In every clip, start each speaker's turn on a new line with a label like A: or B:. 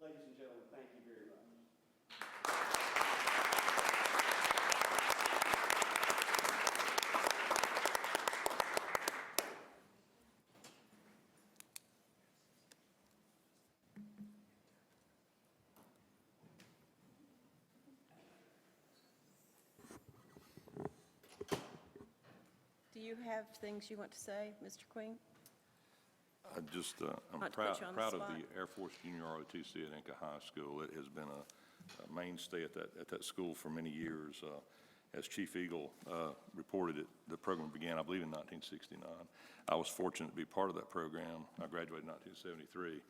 A: Ladies and gentlemen, thank you very much.
B: Do you have things you want to say, Mr. Queen?
C: I just, uh,
B: Not
C: I'm
B: to put
C: proud,
B: you on the
C: proud of
B: spot.
C: the Air Force Junior ROTC at Inca High School. It has been a a mainstay at that, at that school for many years. Uh, As Chief Eagle uh, reported it, the program began, I believe, in 1969. I was fortunate to be part of that program. I graduated in 1973.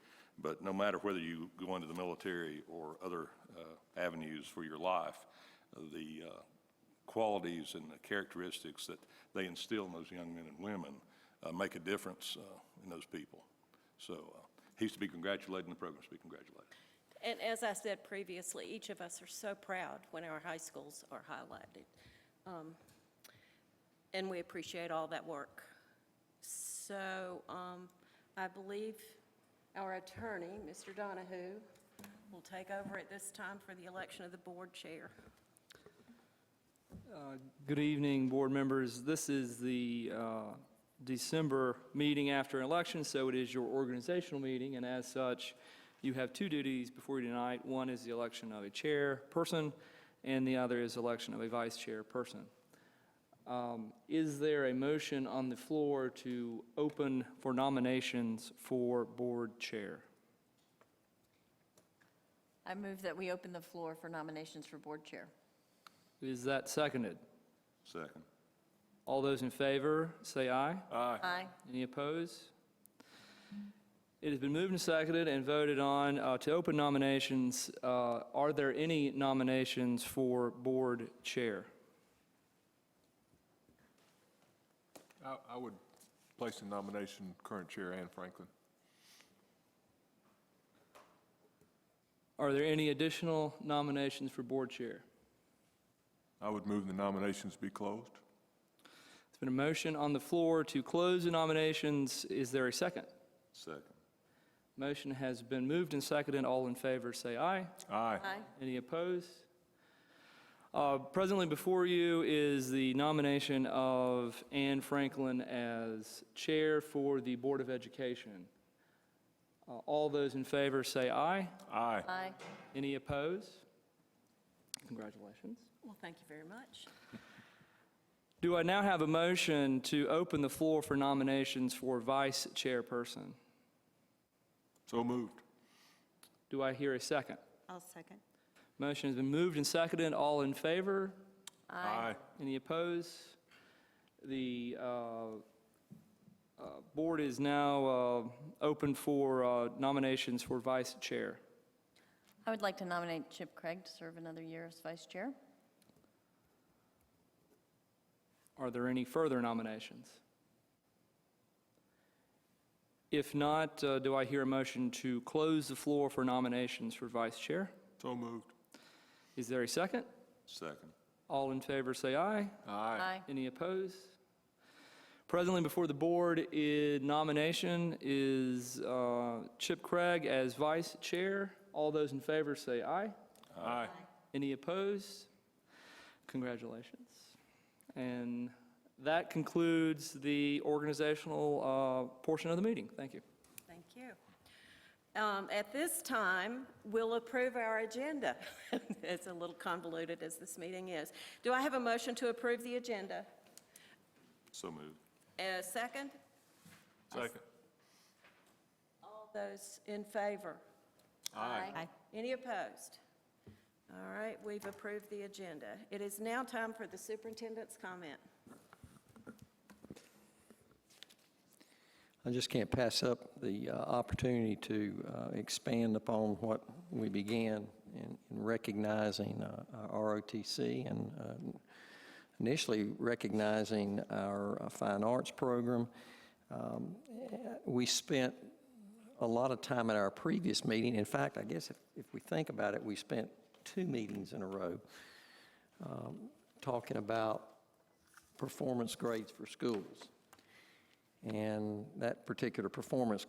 C: But no matter whether you go into the military or other uh, avenues for your life, the uh, qualities and the characteristics that they instill in those young men and women uh, make a difference uh, in those people. So uh, he's to be congratulated, and the program's to be congratulated.
B: And as I said previously, each of us are so proud when our high schools are highlighted. Um, And we appreciate all that work. So um, I believe our attorney, Mr. Donahue, will take over at this time for the election of the board chair.
D: Good evening, board members. This is the uh, December meeting after an election, so it is your organizational meeting, and as such, you have two duties before you tonight. One is the election of a chairperson, and the other is election of a vice chairperson. Um, Is there a motion on the floor to open for nominations for board chair?
E: I move that we open the floor for nominations for board chair.
D: Is that seconded?
C: Second.
D: All those in favor, say aye.
E: Aye.
D: Any opposed? It has been moved and seconded and voted on uh, to open nominations. Uh, Are there any nominations for board chair?
F: I I would place in nomination current Chair Ann Franklin.
D: Are there any additional nominations for board chair?
F: I would move the nominations be closed.
D: It's been a motion on the floor to close the nominations. Is there a second?
C: Second.
D: Motion has been moved and seconded. All in favor, say aye.
F: Aye.
E: Aye.
D: Any opposed? Uh, Presently before you is the nomination of Anne Franklin as Chair for the Board of Education. Uh, All those in favor say aye.
F: Aye.
E: Aye.
D: Any opposed? Congratulations.
B: Well, thank you very much.
D: Do I now have a motion to open the floor for nominations for Vice Chairperson?
F: So moved.
D: Do I hear a second?
B: I'll second.
D: Motion has been moved and seconded. All in favor? Any opposed? The uh, uh, board is now uh, open for uh, nominations for vice chair.
E: I would like to nominate Chip Craig to serve another year as vice chair.
D: Are there any further nominations? If not, uh, do I hear a motion to close the floor for nominations for vice chair?
F: So moved.
D: Is there a second?
C: Second.
D: All in favor, say aye.
E: Aye.
D: Any opposed? Presently before the board in nomination is uh, Chip Craig as vice chair. All those in favor say aye.
F: Aye.
D: Any opposed? Congratulations. And that concludes the organizational uh, portion of the meeting. Thank you.
B: Thank you. Um, At this time, we'll approve our agenda. It's a little convoluted as this meeting is. Do I have a motion to approve the agenda?
C: So moved.
B: A second?
F: Second.
B: All those in favor?
E: Aye.
B: Any opposed? All right, we've approved the agenda. It is now time for the superintendent's comment.
G: I just can't pass up the uh, opportunity to uh, expand upon what we began in in recognizing uh, our ROTC and uh, initially recognizing our uh, fine arts program. Um, eh, We spent a lot of time at our previous meeting. In fact, I guess if- if we think about it, we spent two meetings in a row um, talking about performance grades for schools. And that particular performance